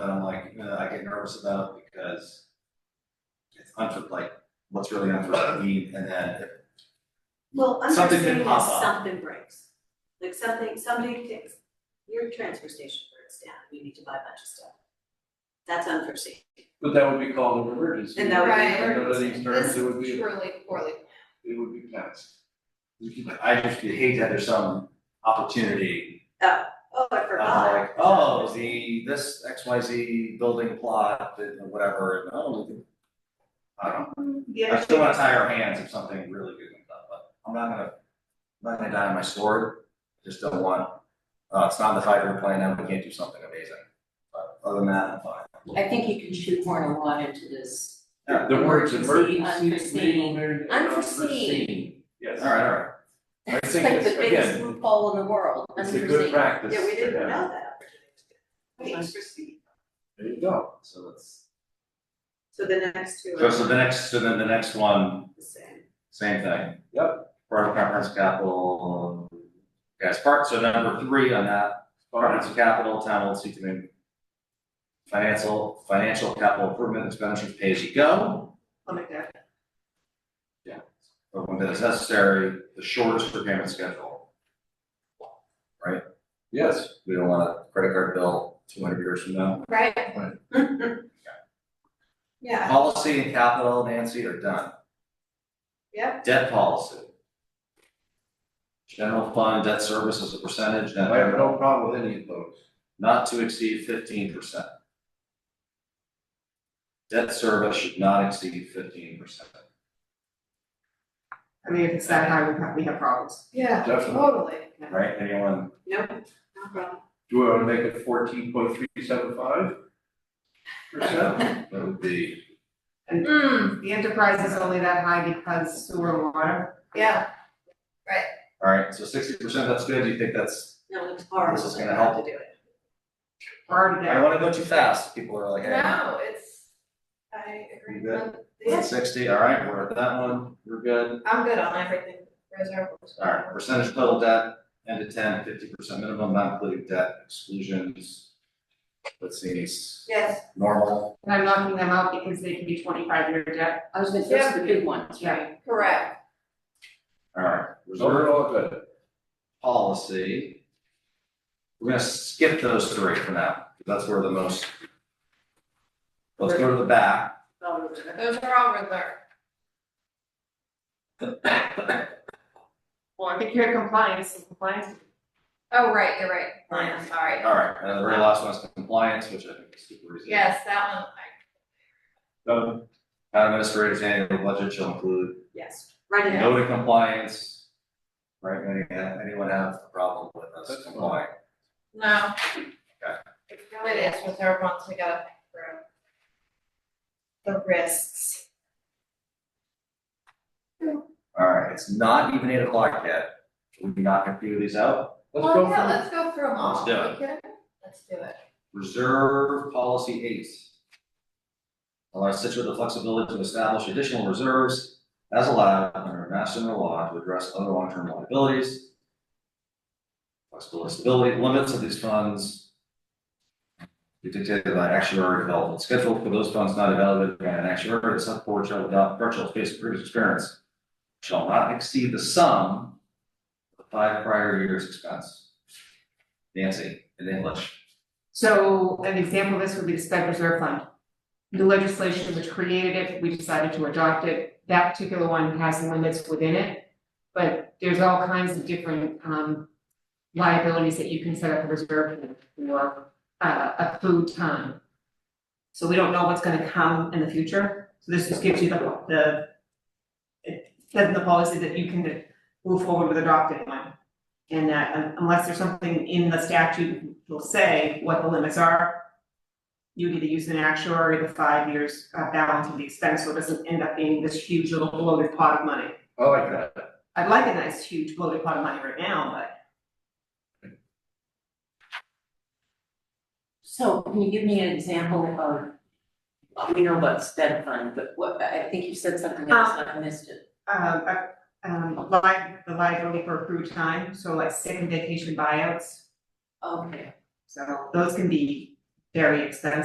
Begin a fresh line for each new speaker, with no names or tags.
uh, get nervous about because it's unfit, like, what's really unfit need, and then if
Well, I'm just
Something can
saying if
pop up.
something breaks, like something, somebody takes, your transfer station breaks down, you need to buy a bunch of stuff. That's unforeseen,
But that would be called an emergency.
and that would be
Right.
an
Under
emergency.
these
This
terms, it would
is
be,
truly poorly.
it would be passed.
you keep, like, I just hate that there's some opportunity.
Oh, I
uh,
forgot.
Like, oh, the, this X, Y, Z building plot, and whatever, and oh, we can. I don't know, I
Yeah.
still wanna tie our hands if something really good comes up, but I'm not gonna, I'm not gonna die on my sword, I just don't want. Uh, it's not the five-year plan, now we can't do something amazing, but other than that, I'm fine.
I think you can shoehorn a lot into this.
Yeah,
The words
Emergency,
emergency, legal, mar-
unforeseen.
unforeseen. Yes.
Alright, alright.
I
It's
think
like the
it's-
biggest
again,
loophole in the world,
It's a good
unforeseen.
practice.
Yeah, we
to
didn't
have.
know that. Wait,
There you go.
So that's.
So the next two
So,
are
so
the
the next, so then the next one,
same.
same thing. Yep. Part of comprehensive capital, guys, part, so number three on that, comprehensive capital, town will seek to make. Financial, financial capital improvement expenditures pay as you go,
I'll make that.
but when that is necessary, the shortest repayment schedule.
Yes,
We don't want a credit card bill two hundred years from now.
Right.
Yeah,
Policy and capital, Nancy, are done.
Yep.
Debt policy. General fund debt service as a percentage,
I
net
have no problem with any of those.
not to exceed fifteen percent. Debt service should not exceed fifteen percent.
I mean, if it's that high, we have, we have problems.
Yeah,
Definitely.
totally.
Right, anyone?
no, no problem.
Do I want to make it fourteen point three seven five? Percent?
That would be,
Hmm.
The enterprise is only that high because sewer and water.
Yeah,
all right, so sixty percent, that's good, Do you think that's,
No, it's horrible.
This is gonna help.
to do it.
We're already
I don't
there.
wanna go too fast, people are like, hey,
no, it's, I agree
You
with,
it's sixty, all right, we're at that one, we're good.
I'm good on everything, reserve. was-
All right, percentage of total debt, end to 10, 50 percent minimum, not including debt exclusions. Let's see, it's
Yes,
normal,
And I'm knocking them out because they can be twenty-five year debt.
I was gonna say, those are the big ones, right?
correct,
all right, reserve
Overall, good.
policy. We're gonna skip those three for now, because that's where the most. Let's go to the back.
Oh, we're gonna-
those are all reserve.
Well, I think you're in compliance, and compliance.
Oh, right, you're right,
Fine.
I'm sorry.
Alright, and the very last one is compliance, which I think is super easy.
Yes, that one, I,
Done.
Town administrator's annual budget shall include
Yes, right now.
note of compliance. Right, any- anyone have a problem with us
That's fine.
complying?
no.
Okay.
It is reserve once we gotta think through. The risks.
Alright, it's not even eight o'clock yet, Should we not gonna figure these out?
Let's go
Well, yeah,
for
let's go through them all,
Let's do it.
Okay? Let's do it.
Reserve policy eight. Allow Situate the flexibility to establish additional reserves as allowed under master general law to address other long-term liabilities. Flexible stability limits of these funds. Be dictated by actuary development schedule for those funds not evaluated by an actuary, the select board shall adopt virtual based on previous experience. Shall not exceed the sum of the five prior years' expense. Nancy, in English.
So an example of this would be the sped reserve fund. The legislation which created it, we decided to adopt it. That particular one has limits within it. But there's all kinds of different um liabilities that you can set up a reserve for, for uh a food time. So we don't know what's gonna come in the future, so this just gives you the the. It says in the policy that you can move forward with adopting one. And that un- unless there's something in the statute will say what the limits are. You either use an actuary, the five years uh, balance of the expense, so it doesn't end up being this huge little bloated pot of money.
I like that.
I'd like a nice huge bloated pot of money right now, but
So can you give me an example of, well, we know about sped fund, but what, I think you said something else,
Uh,
and I missed it.
um, uh, um, li- the liability for accrued time, so like sick and vacation buyouts.
Okay.
So those can be very expensive.